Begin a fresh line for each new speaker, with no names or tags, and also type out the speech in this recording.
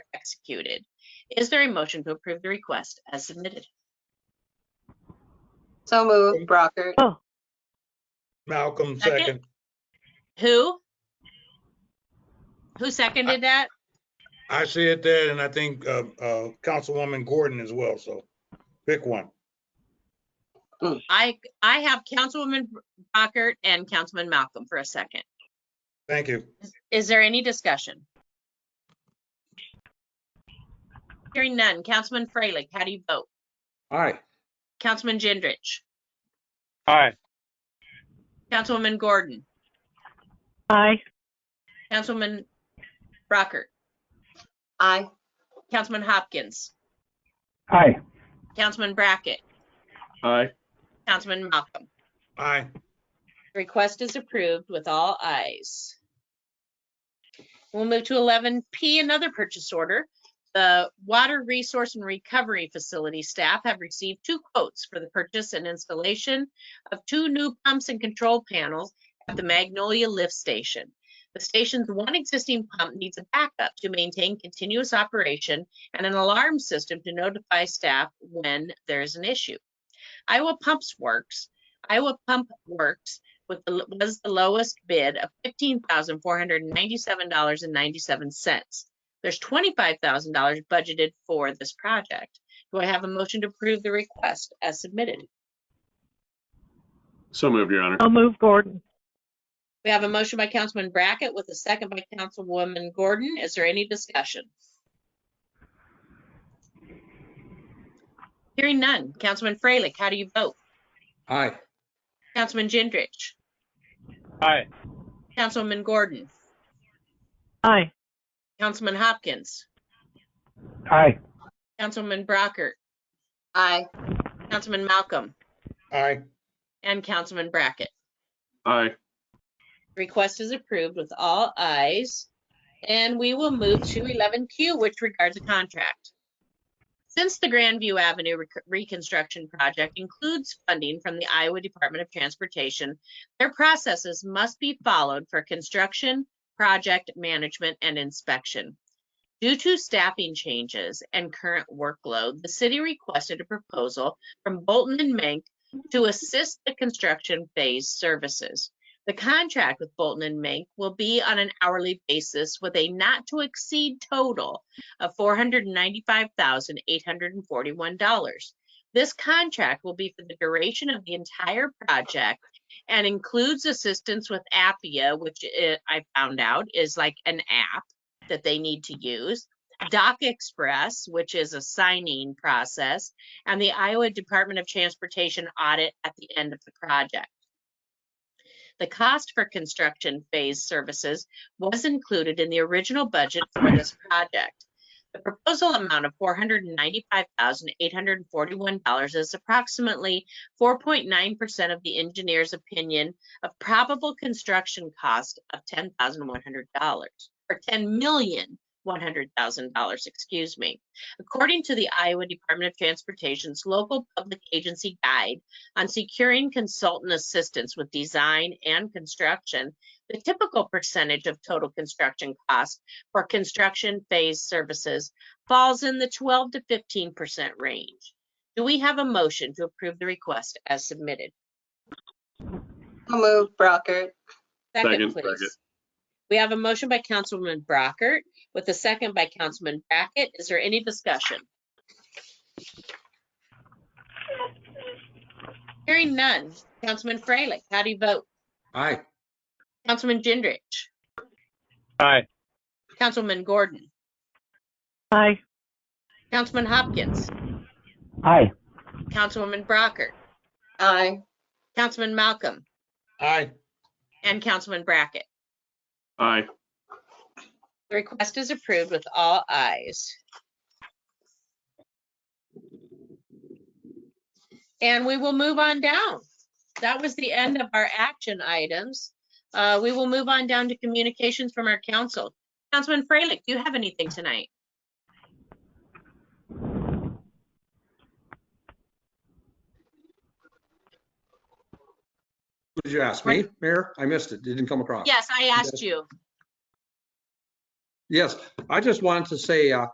executed. Is there a motion to approve the request as submitted?
So moved, Brockert.
Malcolm,
Second.
second.
Who? Who seconded that?
I see it there, and I think uh, uh, Councilwoman Gordon as well, so pick one.
I, I have Councilwoman Brockert and Councilman Malcolm for a second.
Thank you.
Is there any discussion? Hearing none. Councilman Freilich, how do you vote?
Aye.
Councilman Gendrich?
Aye.
Councilwoman Gordon?
Aye.
Councilwoman Brockert?
Aye.
Councilman Hopkins?
Aye.
Councilman Brackett?
Aye.
Councilman Malcolm?
Aye.
Request is approved with all ayes. We'll move to eleven P, another purchase order. The Water Resource and Recovery Facility staff have received two quotes for the purchase and installation of two new pumps and control panels at the Magnolia Lift Station. The station's one existing pump needs a backup to maintain continuous operation and an alarm system to notify staff when there is an issue. Iowa Pumps Works, Iowa Pump Works with the, was the lowest bid of fifteen thousand four hundred and ninety-seven dollars and ninety-seven cents. There's twenty-five thousand dollars budgeted for this project. Do I have a motion to approve the request as submitted?
So moved, Your Honor.
I'll move Gordon.
We have a motion by Councilman Brackett with a second by Councilwoman Gordon. Is there any discussion? Hearing none. Councilman Freilich, how do you vote?
Aye.
Councilman Gendrich?
Aye.
Councilwoman Gordon?
Aye.
Councilman Hopkins?
Aye.
Councilman Brockert?
Aye.
Councilman Malcolm?
Aye.
And Councilman Brackett.
Aye.
Request is approved with all ayes. And we will move to 11Q, which regards a contract. Since the Grandview Avenue rec- reconstruction project includes funding from the Iowa Department of Transportation, their processes must be followed for construction, project management, and inspection. Due to staffing changes and current workload, the city requested a proposal from Bolton and Mank to assist the construction phase services. The contract with Bolton and Mink will be on an hourly basis with a not to exceed total of four hundred and ninety-five thousand, eight hundred and forty-one dollars. This contract will be for the duration of the entire project and includes assistance with Appia, which i- I found out is like an app that they need to use. Doc Express, which is a signing process, and the Iowa Department of Transportation audit at the end of the project. The cost for construction phase services was included in the original budget for this project. The proposal amount of four hundred and ninety-five thousand, eight hundred and forty-one dollars is approximately four point nine percent of the engineer's opinion of probable construction cost of ten thousand, one hundred dollars, or ten million, one hundred thousand dollars, excuse me. According to the Iowa Department of Transportation's local public agency guide, on securing consultant assistance with design and construction, the typical percentage of total construction cost for construction phase services falls in the 12 to 15% range. Do we have a motion to approve the request as submitted?
So moved, Brockert.
Second,
Second,
Brackett.
please. We have a motion by Councilwoman Brockert with a second by Councilman Brackett. Is there any discussion? Hearing none. Councilman Freilich, how do you vote?
Aye.
Councilman Gendrich,
Aye.
Councilman Gordon,
Aye.
Councilman Hopkins,
Aye.
Councilwoman Brockert,
Aye.
Councilman Malcolm,
Aye.
and Councilman Brackett.
Aye.
The request is approved with all ayes. And we will move on down. That was the end of our action items. Uh, We will move on down to communications from our council. Councilman Freilich, do you have anything tonight?
Did you ask me, Mayor? I missed it. It Didn't come across.
Yes, I asked you.
Yes, I just wanted to say, uh,